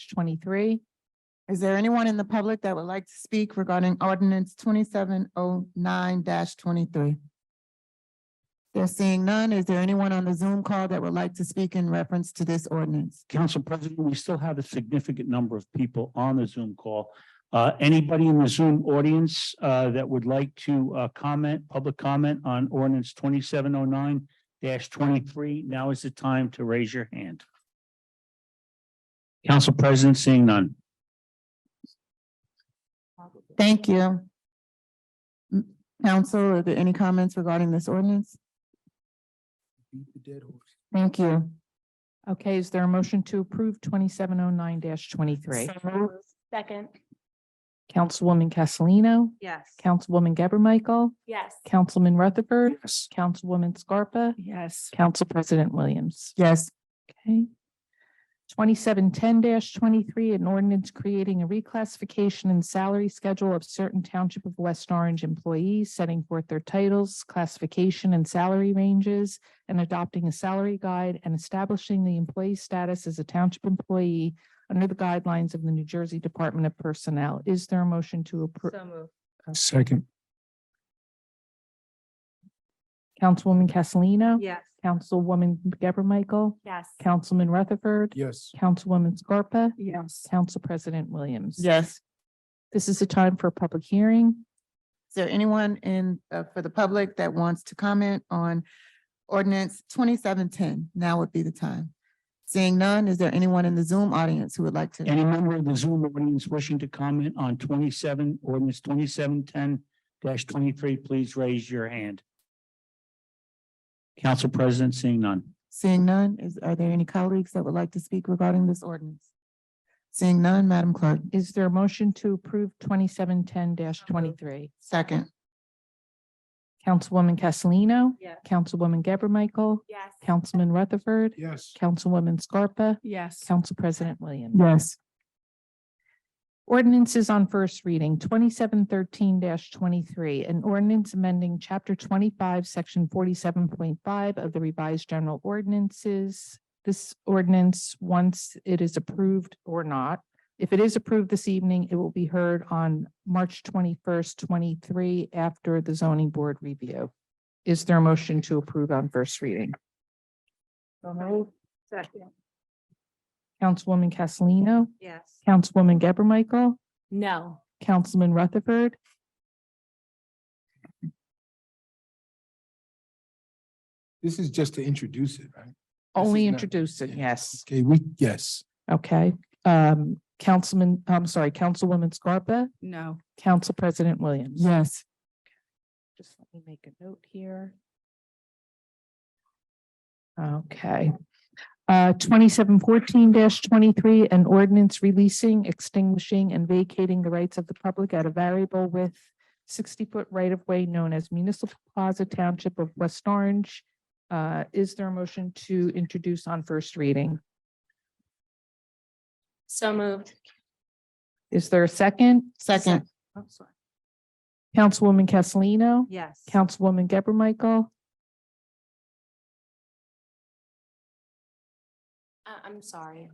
twenty-three. Is there anyone in the public that would like to speak regarding ordinance twenty-seven oh nine twenty-three? There seeing none, is there anyone on the Zoom call that would like to speak in reference to this ordinance? Council President, we still have a significant number of people on the Zoom call. Uh, anybody in the Zoom audience, uh, that would like to, uh, comment, public comment on ordinance twenty-seven oh nine twenty-three, now is the time to raise your hand. Council President, seeing none. Thank you. M- Council, are there any comments regarding this ordinance? Thank you. Okay, is there a motion to approve twenty-seven oh nine twenty-three? So moved. Second, Councilwoman Castellino, yes. Councilwoman Geber Michael, Yes. Councilman Rutherford, Yes. Councilwoman Scarpa, Yes. Council President Williams. Yes, Okay. Twenty-seven ten twenty-three, an ordinance creating a reclassification and salary schedule of certain Township of West Orange employees, setting forth their titles, classification and salary ranges, and adopting a salary guide and establishing the employee's status as a township employee under the guidelines of the New Jersey Department of Personnel. Is there a motion to approve? So moved. Second. Councilwoman Castellino? Yes. Councilwoman Geber Michael? Yes. Councilman Rutherford? Yes. Councilwoman Scarpa? Yes. Council President Williams. yes. This is the time for a public hearing. Is there anyone in, uh, for the public that wants to comment on ordinance twenty-seven ten? Now would be the time. Seeing none, is there anyone in the Zoom audience who would like to? Any member of the Zoom audience wishing to comment on twenty-seven, ordinance twenty-seven ten twenty-three, please raise your hand. Council President, seeing none. Seeing none, is, are there any colleagues that would like to speak regarding this ordinance? Seeing none, Madam Clerk, Is there a motion to approve twenty-seven ten twenty-three? second. Councilwoman Castellino, Yes. Councilwoman Geber Michael, Yes. Councilman Rutherford, Yes. Councilwoman Scarpa, Yes. Council President Williams. Yes. Ordinances on first reading, twenty-seven thirteen twenty-three, an ordinance amending chapter twenty-five, section forty-seven point five of the revised general ordinances. This ordinance, once it is approved or not, if it is approved this evening, it will be heard on March twenty-first, twenty-three, after the zoning board review. Is there a motion to approve on first reading? Second, Councilwoman Castellino, yes. Councilwoman Geber Michael, No. Councilman Rutherford, This is just to introduce it, right? only not- introducing, yeah. yes. Okay, we, yes, Okay, um, Councilman, I'm sorry, Councilwoman Scarpa, No. Council President Williams. Yes. Just let me make a note here. Okay. Uh, twenty-seven fourteen twenty-three, an ordinance releasing, extinguishing, and vacating the rights of the public at a variable with sixty-foot right-of-way known as Municipal Plaza Township of West Orange. Uh, is there a motion to introduce on first reading? So moved. Is there a second? Second, Councilwoman Castellino? Yes. Councilwoman Geber Michael? Uh, I'm sorry.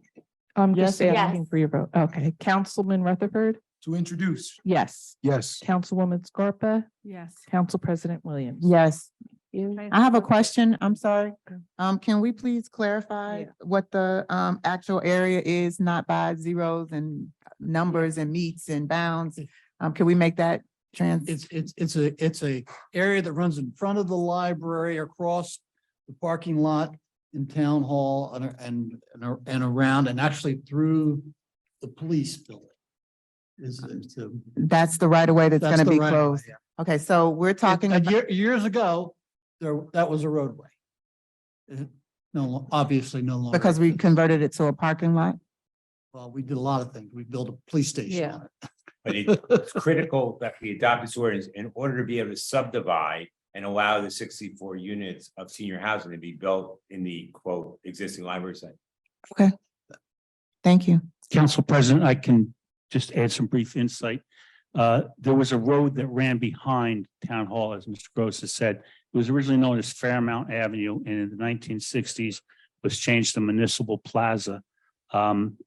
I'm just Yes. asking Yes. for your vote. Okay, Councilman Rutherford? to introduce, Yes. yes. Councilwoman Scarpa? Yes. Council President Williams? yes. You? I have a question, I'm sorry. Um, can we please clarify Yeah. what the, um, actual area is, not by zeros and numbers and meets and bounds? Um, can we make that trans? It's, it's, it's a, it's a area that runs in front of the library, across the parking lot in Town Hall and, and, and ar- and around, and actually through the police building. Is, is the. That's the right of way that's that's gonna the be right of way, closed. yeah. Okay, so we're talking And about, year- Years ago, there, that was a roadway. Uh, No, lo- obviously no longer. because we converted it to a parking lot? Well, we did a lot of things. We built a police station Yeah. on it. But it- it's critical that we adopt this ordinance in order to be able to subdivide and allow the sixty-four units of senior housing to be built in the quote existing library site. Thank you. Council President, I can just add some brief insight. Uh, There was a road that ran behind Town Hall, as Mr. Gross has said. It was originally known as Fairmount Avenue and in the nineteen sixties was changed to Municipal Plaza. Um,